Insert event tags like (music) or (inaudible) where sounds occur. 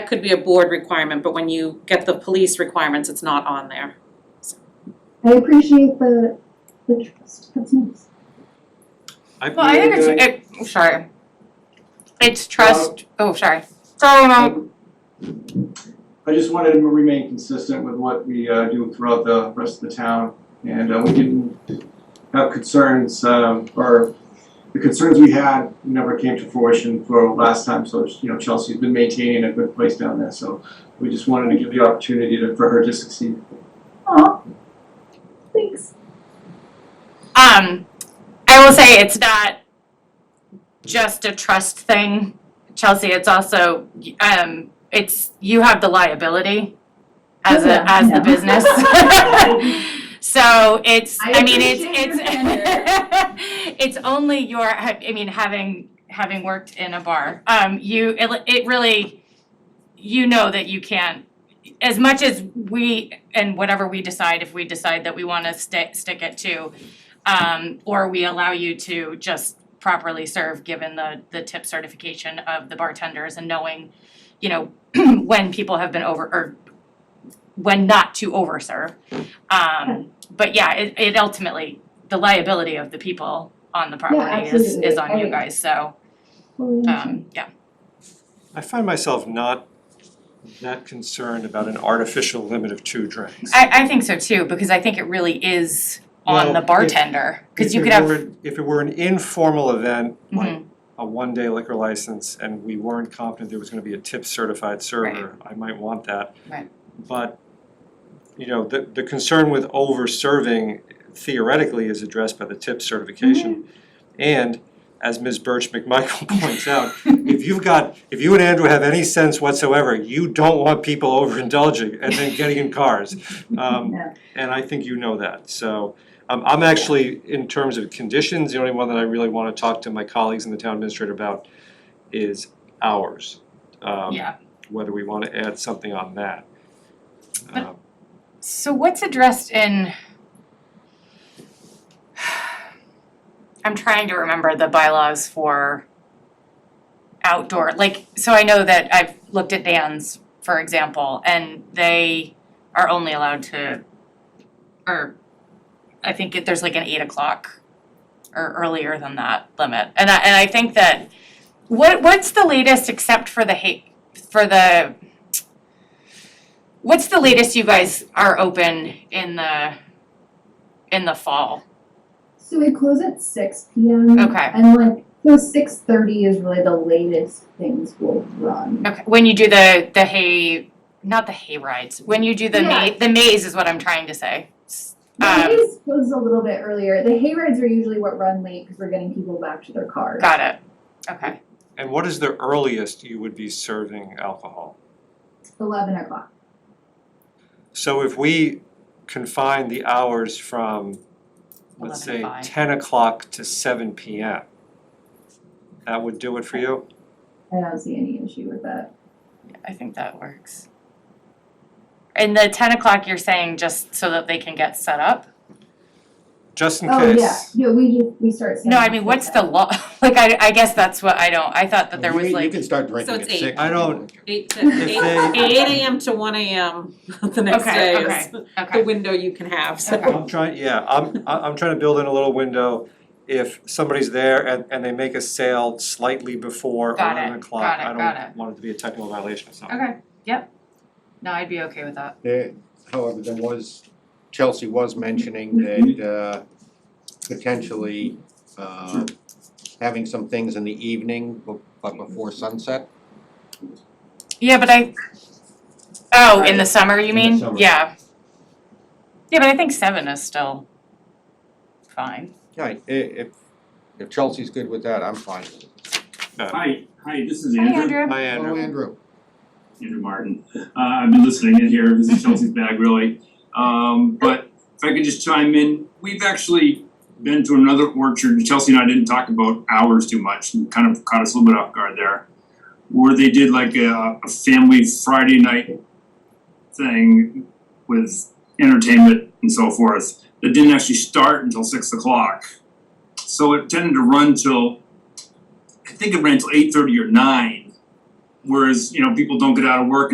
That could be a board requirement, but when you get the police requirements, it's not on there. I appreciate the, the trust, that's nice. I've Well, I think been- it's, it, Oh, sorry. It's trust, oh, sorry. Sorry, Mom. I just wanted to remain consistent with what we uh, do throughout the rest of the town. And uh, we didn't have concerns, um, or the concerns we had never came to fruition for last time. So, you know, Chelsea's been maintaining a good place down there, so we just wanted to give the opportunity to, for her to succeed. Aw, thanks. Um, I will say it's not just a trust thing, Chelsea. It's also um, it's you have the liability as a Yeah, as yeah. (laughs) the business. so it's I, I mean it's appreciate your it's (laughs) it's only your I mean having having worked in a bar, um, you it, it really you know that you can't as much as we and whatever we decide if we decide that we want to stick stick it to um, or we allow you to just properly serve given the, the tip certification of the bartenders and knowing, you know, (clears throat) when people have been over, or when not to overserve. Um, but yeah, it, it ultimately, the liability of the people on the property is, is absolutely. on you Okay. guys, so, Fully understand. um, yeah. I find myself not that concerned about an artificial limit of two drinks. I, I think so too, because I think it really is on Well, the if- bartender, cause If you it could have, were- If it were an informal event, like Mhm. a one-day liquor license, and we weren't confident there was gonna be a tip certified server, I might want that. Right. But, you know, the, the concern with over-serving theoretically is addressed by the tip Mm-hmm. certification. And as Ms. Birch McMichael (laughs) points out, (laughs) if you've got, if you and Andrew have any sense whatsoever, you don't want people (laughs) overindulging and then getting in cars. Um, No. and I think you know that, so, um, I'm actually, in terms of conditions, the only one that I really wanna talk to my colleagues and the town administrator about is hours. Um, yeah. Whether we wanna add something on that. But- Um, So what's addressed in? I'm trying to remember the bylaws for outdoor, like, so I know that I've looked at bands, for example, and they are only allowed to, or I think it, there's like an eight o'clock or earlier than that limit. And I, and I think that, what, what's the latest except for the hate, for the What's the latest you guys are open in the in the fall? So we close at six P M. Okay. And like, so six thirty is really the latest things will run. Okay, when you do the the hay, not the hay rides. When you do the Yeah. ma- the maze is what I'm trying to say. S- The um, haze closes a little bit earlier, the hay rides are usually what run late, because we're getting people back to their cars. Got it. Okay. And what is the earliest you would be serving alcohol? Eleven o'clock, So if we confine the hours from, let's 11 say, to five. ten o'clock to seven P M. That would do it for you? I don't see any issue with that. I think that works. And the ten o'clock you're saying just so that they can get set up? Just in Oh, yeah, case. yeah, we just, we start. No, I setting mean up what's like the that. law? (laughs) Like I I guess that's what I don't. I thought that there was You- You like can start So drinking at it's eight. six. I don't- Eight to, If eight, they- eight AM to one AM (laughs) the next Okay, day okay, is the okay. window you can have, so. Okay. I'm trying, yeah, I'm, I- I'm trying to build in a little window. If somebody's there and, and they make a sale slightly before Got it, eleven o'clock, got it, I got it. don't want it to be a technical violation or something. Okay. Yep. No, I'd be okay with that. There- Uh, However, there was, Chelsea was mentioning that uh, potentially uh, having some things in the evening, bu- but before sunset. Yeah, but I. Oh, in the summer, you In the mean? summer. Yeah. Yeah, but I think seven is still fine. Right, i- if, if Chelsea's good with that, I'm fine. with it. Hi, hi, this is Hi, Andrew. Andrew. Hi, Hello, Andrew. Oh, Andrew. Andrew Martin. Uh, I've been listening in here. This is Chelsea's bag, really. Um, but if I could just chime in, we've actually been to another orchard. Chelsea and I didn't talk about hours too much and kind of caught us a little bit off guard there. Where they did like a, a family Friday night thing with entertainment and so forth that didn't actually start until six o'clock. So it tended to run till, I think it ran till eight thirty or nine Whereas, you know, people don't get out of work